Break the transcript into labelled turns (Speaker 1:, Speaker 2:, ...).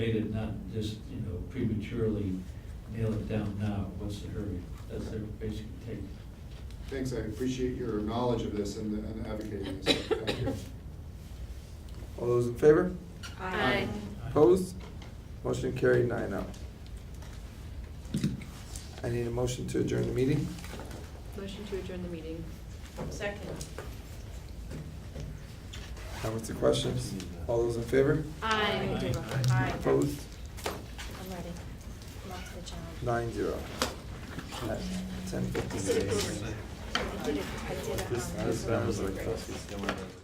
Speaker 1: made it not just, you know, prematurely nail it down now, what's the hurry? That's their basic take.
Speaker 2: Thanks, I appreciate your knowledge of this and and advocating this. Thank you.
Speaker 3: All those in favor?
Speaker 4: Aye.
Speaker 3: Opposed? Motion carried nine oh. I need a motion to adjourn the meeting.
Speaker 4: Motion to adjourn the meeting.
Speaker 5: Second.
Speaker 3: Comments or questions? All those in favor?
Speaker 1: Aye.
Speaker 5: Aye.
Speaker 3: Opposed?
Speaker 6: I'm ready. I'm up to the challenge.
Speaker 3: Nine zero. At ten
Speaker 6: I did it.
Speaker 3: fifty-six.
Speaker 6: I did it. I did it. on
Speaker 3: This
Speaker 6: purpose.
Speaker 3: sounds like